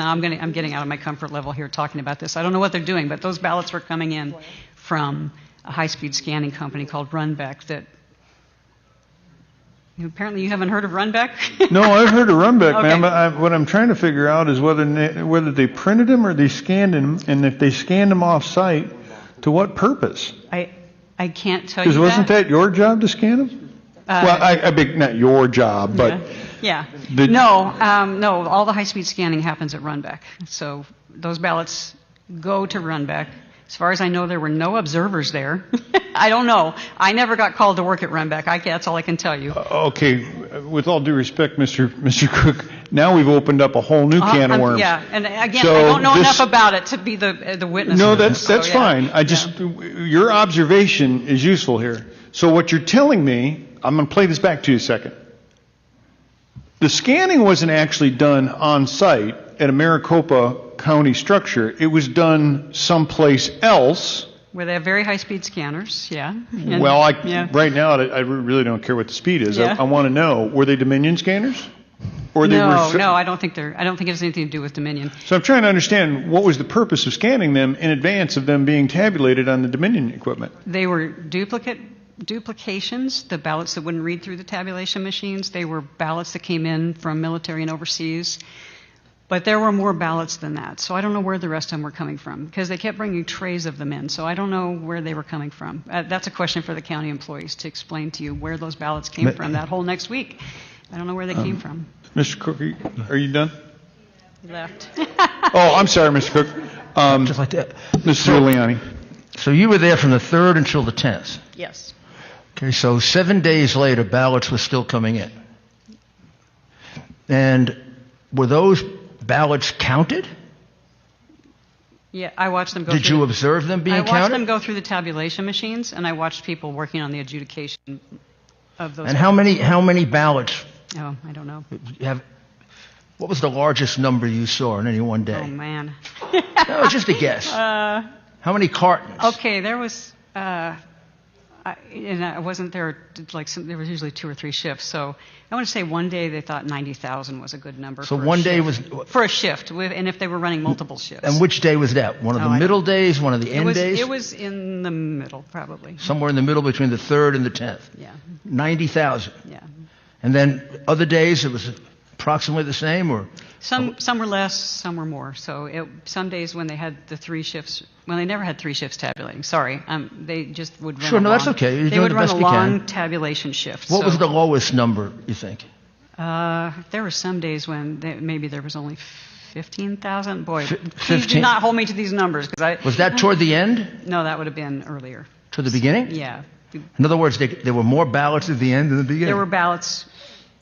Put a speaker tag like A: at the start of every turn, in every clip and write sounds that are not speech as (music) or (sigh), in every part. A: Now, I'm going to, I'm getting out of my comfort level here talking about this. I don't know what they're doing, but those ballots were coming in from a high-speed scanning company called Runback that, apparently you haven't heard of Runback?
B: No, I've heard of Runback,
A: Okay.
B: ma'am, but I, what I'm trying to figure out is whether, ne- whether they printed them or they scanned them, and if they scanned them off-site, to what purpose?
A: (laughs) I, I can't tell you
B: Because
A: that. Uh,
B: wasn't that your job to scan them? Well, I, I beg, not your job, but,
A: Yeah.
B: The-
A: No, um, no, all the high-speed scanning happens at Runback. So those ballots go to Runback. As far as I know, there were no observers there. (laughs) I don't know. I never got called to work at Runback. I, that's all I can tell you.
B: okay, with all due respect, Mr. Mr. Cook, now we've opened up a whole new
A: Uh,
B: can of
A: I'm-
B: worms.
A: Yeah, and again, I
B: So
A: don't know
B: this-
A: enough about it to be the, uh, the witness.
B: No,
A: on this,
B: that's,
A: so,
B: that's
A: Oh, yeah.
B: fine. I just, your observation is useful here. So what you're telling me, I'm going to play this back to you a second. The scanning wasn't actually done on site at a Maricopa County structure. It was done someplace else.
A: Where they have very high-speed scanners, yeah. And-
B: Well,
A: yeah.
B: I, right now, I I really don't care what the speed is. I
A: Yeah.
B: I want to know, were they Dominion scanners? or they were?
A: No,
B: so-
A: no, I don't think they're, I don't think it has anything to do with Dominion.
B: So I'm trying to understand, what was the purpose of scanning them in advance of them being tabulated on the Dominion equipment?
A: They were duplicate duplications, the ballots that wouldn't read through the tabulation machines. They were ballots that came in from military and overseas. But there were more ballots than that. So I don't know where the rest of them were coming from because they kept bringing trays of them in. So I don't know where they were coming from. Uh, that's a question for the county employees to explain to you where those ballots came
B: Ma-
A: from that whole next week. I don't know where they came
C: Um,
A: from.
B: Mr. Cook, are you- are you done?
A: Left. (laughs)
B: Oh, I'm sorry, Mr. Cook. Um,
C: Just like that.
B: Mr. Giuliani.
C: So you were there from the 3rd until the 10th.
A: yes.
C: Okay, so seven days later, ballots were still coming in. And were those ballots counted?
A: Yeah, I watched them go
C: Did
A: through
C: you
A: the-
C: observe them being
A: I
C: counted?
A: watched them go through the tabulation machines, and I watched people working on the adjudication of those.
C: and how many, how many ballots
A: Oh, I don't know.
C: have, what was the largest number you saw in any one
A: Oh
C: day?
A: man.
C: no,
A: (laughs)
C: just a guess. how many cartons?
A: Oh, Uh, Okay, there was, uh, I, and I wasn't there. Like some, there was usually two or three shifts, so I want to say one day they thought ninety thousand was a good number.
C: So
A: for a
C: one day
A: shift.
C: was,
A: for a shift, with, and if they were running multiple shifts.
C: and which day was that? One of
A: Oh,
C: the
A: I don't-
C: middle days, one of the
A: it
C: end
A: was,
C: days?
A: it was in the middle, probably.
C: Somewhere in the middle between the 3rd and the 10th.
A: Yeah,
C: 90,000.
A: yeah.
C: And then other days it was approximately the same or Oh.
A: Some some were less, some were more. So it, some days when they had the three shifts, well, they never had three shifts tabulating. Sorry, um, they just would run.
C: Sure,
A: a
C: no, that's
A: long-
C: okay. You're
A: they
C: doing
A: would
C: the
A: run
C: best
A: a
C: you
A: long
C: can.
A: tabulation shift.
C: what
A: so,
C: was the lowest number you think?
A: Uh, there were some days when they, maybe there was only fifteen thousand. Boy,
C: Fi-
A: please do
C: 15?
A: not hold me to these numbers because I
C: Was that toward the end
A: no, that would have been earlier.
C: to the beginning?
A: Yeah,
C: In other words, they, there were more ballots at the end than the beginning.
A: there were ballots.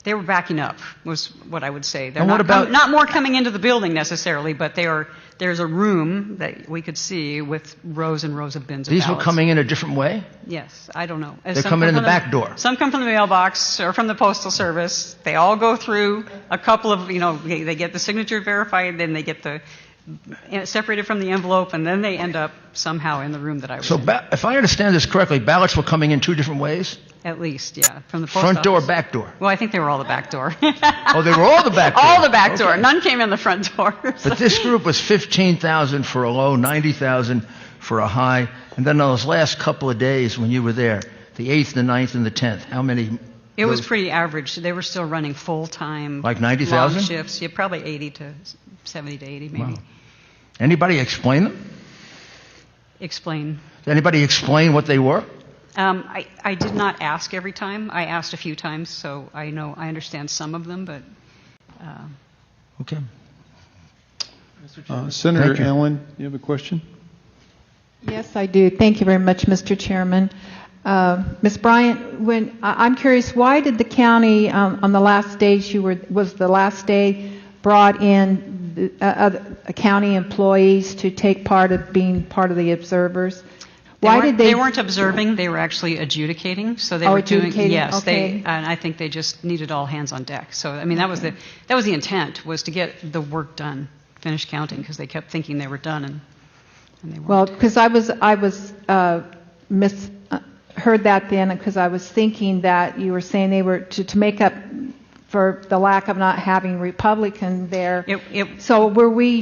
A: They were backing up, was what I would say. They're
C: And
A: not,
C: what
A: com-
C: about-
A: not more coming into the building necessarily, but they are, there's a room that we could see with rows and rows of bins of
C: These were
A: ballots.
C: coming in a different way.
A: Yes, I don't know. They're
C: coming in the back door.
A: Some come from the mailbox or from the postal service. They all go through a couple of, you know, they, they get the signature verified, then they get the eh, separated from the envelope, and then they end up somehow in the room that I was
C: So
A: in.
C: ba- if I understand this correctly, ballots were coming in two different ways,
A: At least, yeah, from the post
C: front door,
A: office.
C: back door.
A: Well, I think they were all the back
C: (laughs)
A: door.
C: Oh, they were all the
A: (laughs)
C: back door.
A: All the back door.
C: Okay.
A: None came in the front door. (laughs) So-
C: But this group was 15,000 for a low, 90,000 for a high. And then those last couple of days when you were there, the 8th, the 9th, and the 10th, how many?
A: it was
C: those-
A: pretty average. They were still running full time.
C: Like 90,000?
A: Long shifts. Yeah, probably 80 to 70 to 80, maybe.
C: Anybody explain them?
A: Explain.
C: Did anybody explain what they were?
A: Um, I, I did not ask every time. I asked a few times, so I know I understand some of them, but
C: Okay.
B: Uh, Senator
C: Thank you.
B: Allen, you have a question?
D: Yes, I do. Thank you very much, Mr. Chairman. Uh, Ms. Bryant, when, I- I'm curious, why did the county, um, on the last day she were, was the last day, brought in the- uh, other uh, county employees to take part of, being part of the observers?
A: they
D: Why
A: weren't-
D: did they?
A: They weren't observing, they were actually adjudicating, so they
D: Oh,
A: were doing...
D: adjudicating,
A: Yes, they,
D: okay.
A: and I think they just needed all hands on deck. So, I mean, that was the, that was the intent, was to get the work done, finish counting, because they kept thinking they were done, and and they weren't.
D: Well, because I was, I was, uh, mis, uh, heard that then, because I was thinking that you were saying they were, to, to make up for the lack of not having Republican there.
A: It- it-
D: So were we